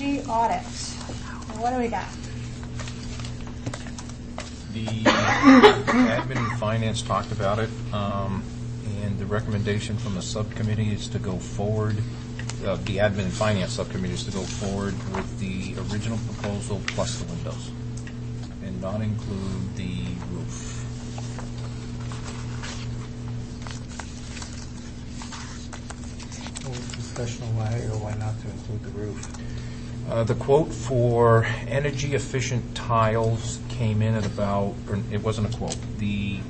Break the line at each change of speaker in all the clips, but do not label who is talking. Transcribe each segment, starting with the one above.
audit. What do we got?
The admin and finance talked about it, um, and the recommendation from the subcommittee is to go forward, uh, the admin and finance subcommittee is to go forward with the original proposal plus the windows, and not include the roof.
Well, Discussion on why or why not to include the roof.
Uh, The quote for energy-efficient tiles came in at about, or it wasn't a quote, the,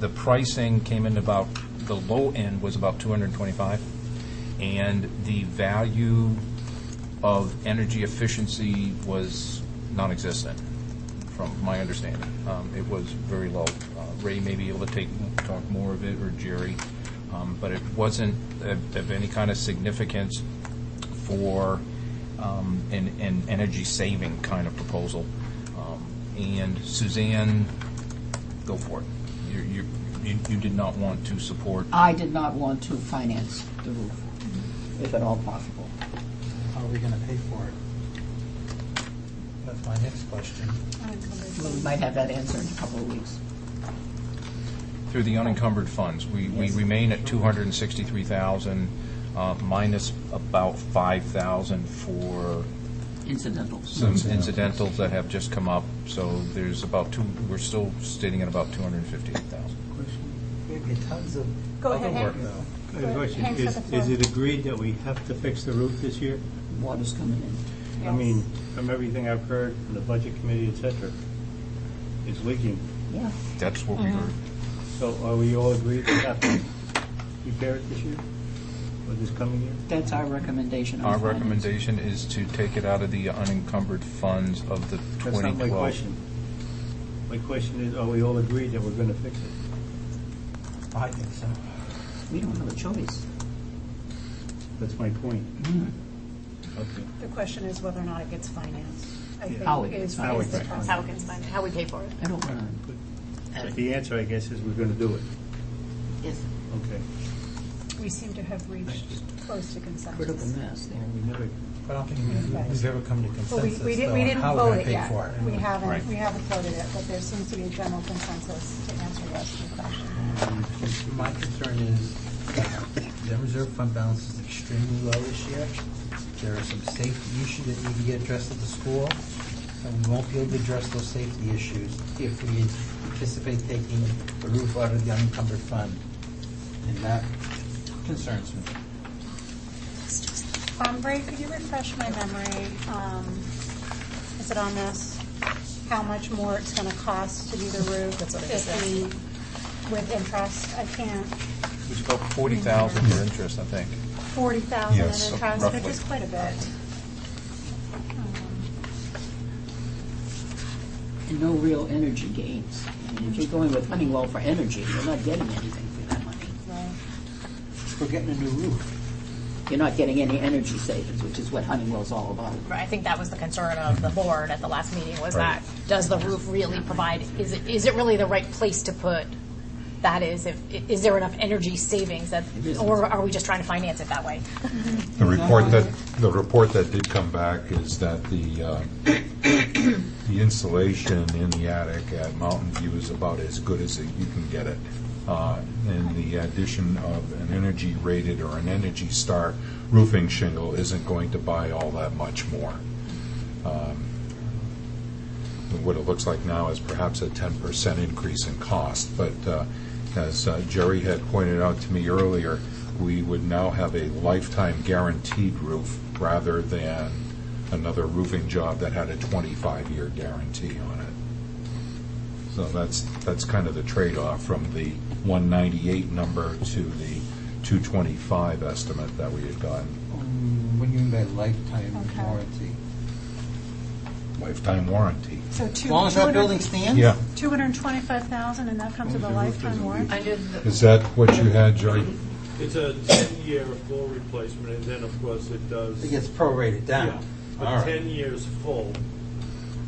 the pricing came in about, the low end was about 225, and the value of energy efficiency was non-existent, from my understanding. Um, It was very low. Uh, Ray may be able to take, talk more of it, or Jerry, um, but it wasn't of of any kind of significance for um, an, an energy saving kind of proposal. Um, And Suzanne, go for it. You, you, you- you did not want to support,
I did not want to finance the roof, if at all possible.
How are we going to pay for it? That's my next question.
We might have that answer in a couple of weeks.
through the unencumbered funds. We, we
Yes.
remain at two hundred and sixty-three thousand, uh, minus about five thousand for
Incidentals.
some incidentals that have just come up. So there's about two, we're still sitting at about two hundred and fifty-eight thousand.
There'd be tons of
Go
other
ahead,
work,
Hank.
though.
I have a question.
Hands
Is,
to the
is
floor.
it agreed that we have to fix the roof this year?
Water's coming in.
I mean, from everything I've heard from the budget committee, et cetera, it's leaking.
Yeah,
That's what we were,
So are we all agreed to have to repair it this year? Or this coming year?
that's our recommendation. on
our
finance.
recommendation is to take it out of the unencumbered funds of the
That's
twenty
not my
twelve
question. My question is, are we all agreed that we're gonna fix it?
I think so.
We don't have a choice.
That's my point.
Mm-hmm.
Okay.
The question is whether or not it gets financed. I
How it
think
gets
is
How it
is the
gets
problem.
How we can find, how we pay for it.
I don't want to.
But The answer, I guess, is we're gonna do it.
Yes.
Okay.
We seem to have reached close to
Critical
consensus.
mess there.
We never,
But I don't think we've ever come to
But we,
consensus,
we
though,
didn't, we
on
didn't
how we're
vote
going to
it
pay
yet.
for it.
We
Right.
haven't, we haven't voted it, but there seems to be a general consensus to answer this question.
My concern is that the reserve fund balance is extremely low this year. There are some safety issues that need to get addressed at the school, and we won't be able to address those safety issues if we anticipate taking the roof out of the unencumbered fund. And that concerns me.
Um, Ray, could you refresh my memory? Um, Is it on this? How much more it's going to cost to do the roof? That's what I With interest, I can't,
It was about forty thousand for interest, I think.
forty thousand in
Yes,
interest,
roughly.
which is quite a bit.
And no real energy gains. I mean, If you're going with Honeywell for energy, you're not getting anything for that money.
Right.
We're getting a new roof.
You're not getting any energy savings, which is what Honeywell's all about.
I think that was the concern of the board at the last meeting, was that, does the roof really provide, is it, is it really the right place to put? That is, if, is there enough energy savings that, or are we just trying to finance it that way?
The report that, the report that did come back is that the, uh, the insulation in the attic at Mountain View is about as good as you can get it. Uh, And the addition of an energy rated or an Energy Star roofing shingle isn't going to buy all that much more. Um, What it looks like now is perhaps a ten percent increase in cost, but uh, as uh, Jerry had pointed out to me earlier, we would now have a lifetime guaranteed roof rather than another roofing job that had a 25-year guarantee on it. So that's, that's kind of the trade-off from the 198 number to the 225 estimate that we had gotten,
Um, What do you mean by lifetime
Okay.
warranty?
lifetime warranty.
So
As
two,
long as that building stands?
Yeah,
Two hundred and twenty-five thousand, and that comes with a lifetime warranty?
is that what you had, Jerry?
It's a 10-year full replacement, and then, of course, it does.
It gets prorated
Yeah,
down. All
but
right.
10 years full,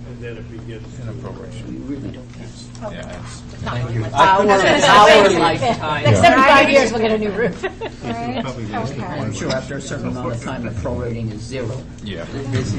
and then it begins
In
to-
a
We
proration.
really don't care.
Yeah, it's-
Thank you.
Our, our
Next
lifetime.
Yeah.
seventy-five years, we'll get a new roof.
Right?
probably less than
Okay.
I'm sure after a certain amount of time, the prorating is zero.
Yeah.
Basically,